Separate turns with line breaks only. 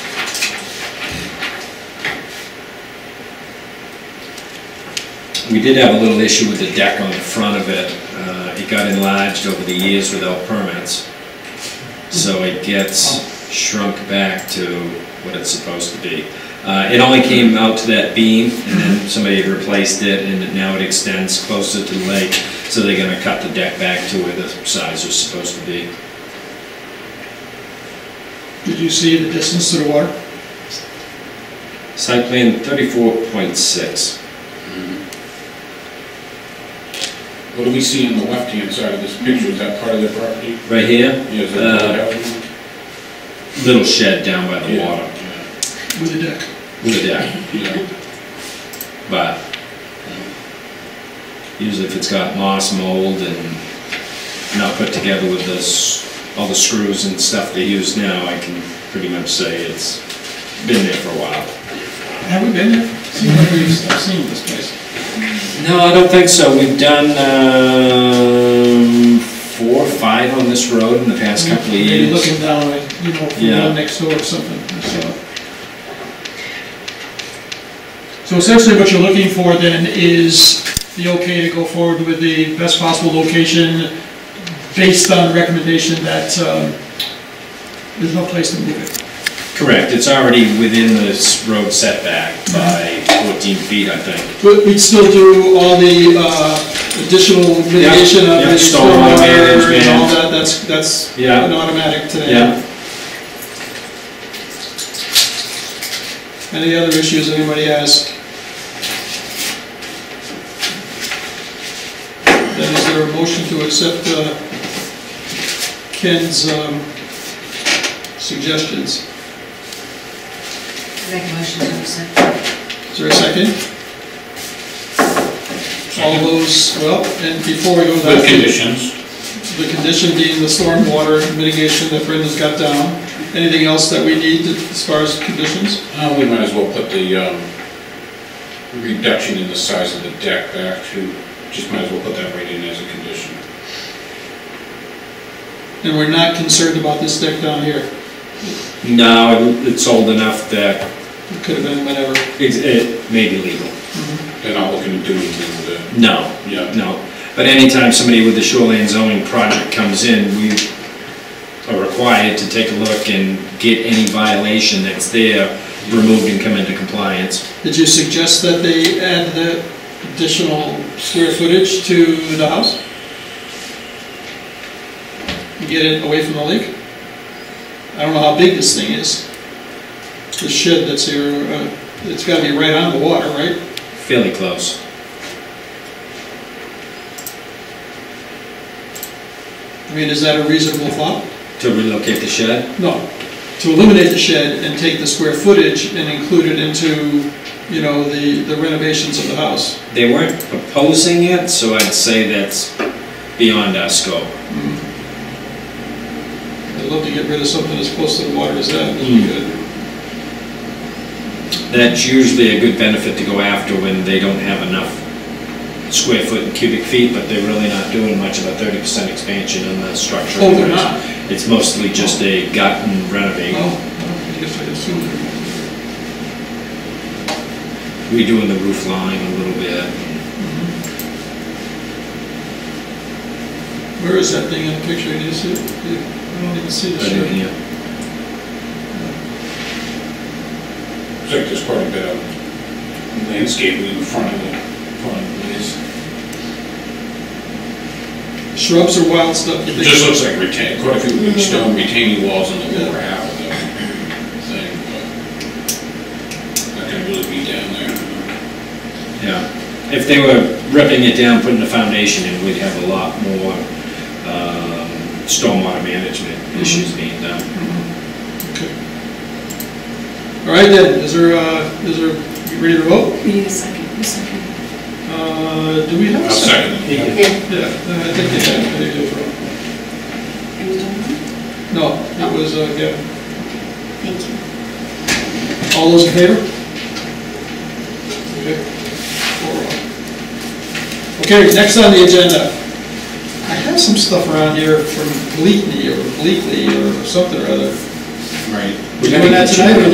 We did have a little issue with the deck on the front of it. Uh, It got enlarged over the years without permits. So it gets shrunk back to what it's supposed to be. Uh, It only came out to that beam and then somebody replaced it and now it extends closer to the lake. So they're gonna cut the deck back to where the size was supposed to be.
Did you see the distance to the water?
Site plan thirty-four point six.
What do we see on the left-hand side of this picture, is that part of their property?
Right here,
Yeah, is
Uh,
that
little shed down by the
Yeah,
water,
With the deck?
with a deck,
Yeah, yeah.
but um, usually if it's got moss, mold, and not put together with this, all the screws and stuff they use now, I can pretty much say it's been there for a while.
Have we been there? Seems like we've, I've seen this place.
No, I don't think so. We've done, um, four, or five on this road in the past couple of
Maybe
years.
Looking down, like, you know, from
Yeah.
down next door or something, so. So essentially what you're looking for then is the okay to go forward with the best possible location based on recommendation that, um, there's no place to move it.
Correct, it's already within this road setback by fourteen feet, I think.
But we'd still do all the, uh, additional mitigation of
yeah,
the
stormwater
stormwater and all
management.
that, that's, that's
Yeah.
an automatic today.
Yeah,
Any other issues anybody has? Then is there a motion to accept uh, Ken's um, suggestions?
Make a motion to accept.
Is there a second? All those, well, and before we go to
With
that,
conditions,
the condition being the stormwater mitigation that Brendan's got down. Anything else that we need as far as conditions?
Uh, we might as well put the, um, reduction in the size of the deck back to, just might as well put that right in as a condition.
And we're not concerned about this deck down here.
no, it- it's old enough that
It could have been whatever.
it's- it may be legal.
They're not looking to do anything with it.
No,
Yeah.
no. But anytime somebody with the shoreline zoning project comes in, we are required to take a look and get any violation that's there removed and come into compliance.
Did you suggest that they add the additional square footage to the house? Get it away from the lake? I don't know how big this thing is. The shed that's here, uh, it's gotta be right on the water, right?
Fairly close.
I mean, is that a reasonable thought?
To relocate the shed?
No. To eliminate the shed and take the square footage and include it into, you know, the the renovations of the house.
They weren't proposing it, so I'd say that's beyond our scope.
I'd love to get rid of something as close to the water as that, would
Hmm.
be good.
That's usually a good benefit to go after when they don't have enough square foot and cubic feet, but they're really not doing much of a thirty percent expansion in the structure.
Oh, they're not? Oh.
It's mostly just a gut and renovate.
Well, I guess I assume they're
redoing the roof line a little bit.
Where is that thing in the picture, do you see it? I don't even see the shape.
Yeah.
It's like there's quite a bit of landscaping in front of the, front of this.
Shrubs or wild stuff? you
It
think?
just looks like retain, quite a few weird stone retaining walls on the lower half of the thing, but not gonna really be down there.
Yeah. If they were ripping it down, putting the foundation in, we'd have a lot more um, stormwater management
Mm-hmm.
issues being done.
Okay. All right then, is there, uh, is there, you ready to vote?
We need a second, a second.
Uh, do we have
I'll
a second?
second.
Yeah.
Yeah.
Yeah, uh, I think they did, I think they did.
Are you done? with it?
No, it was, uh, yeah,
Thank you.
all those in favor? Okay. Four, one. Okay, next on the agenda. I have some stuff around here from Bleakney or Bleakley or something or other.
Right.
We doing that tonight, or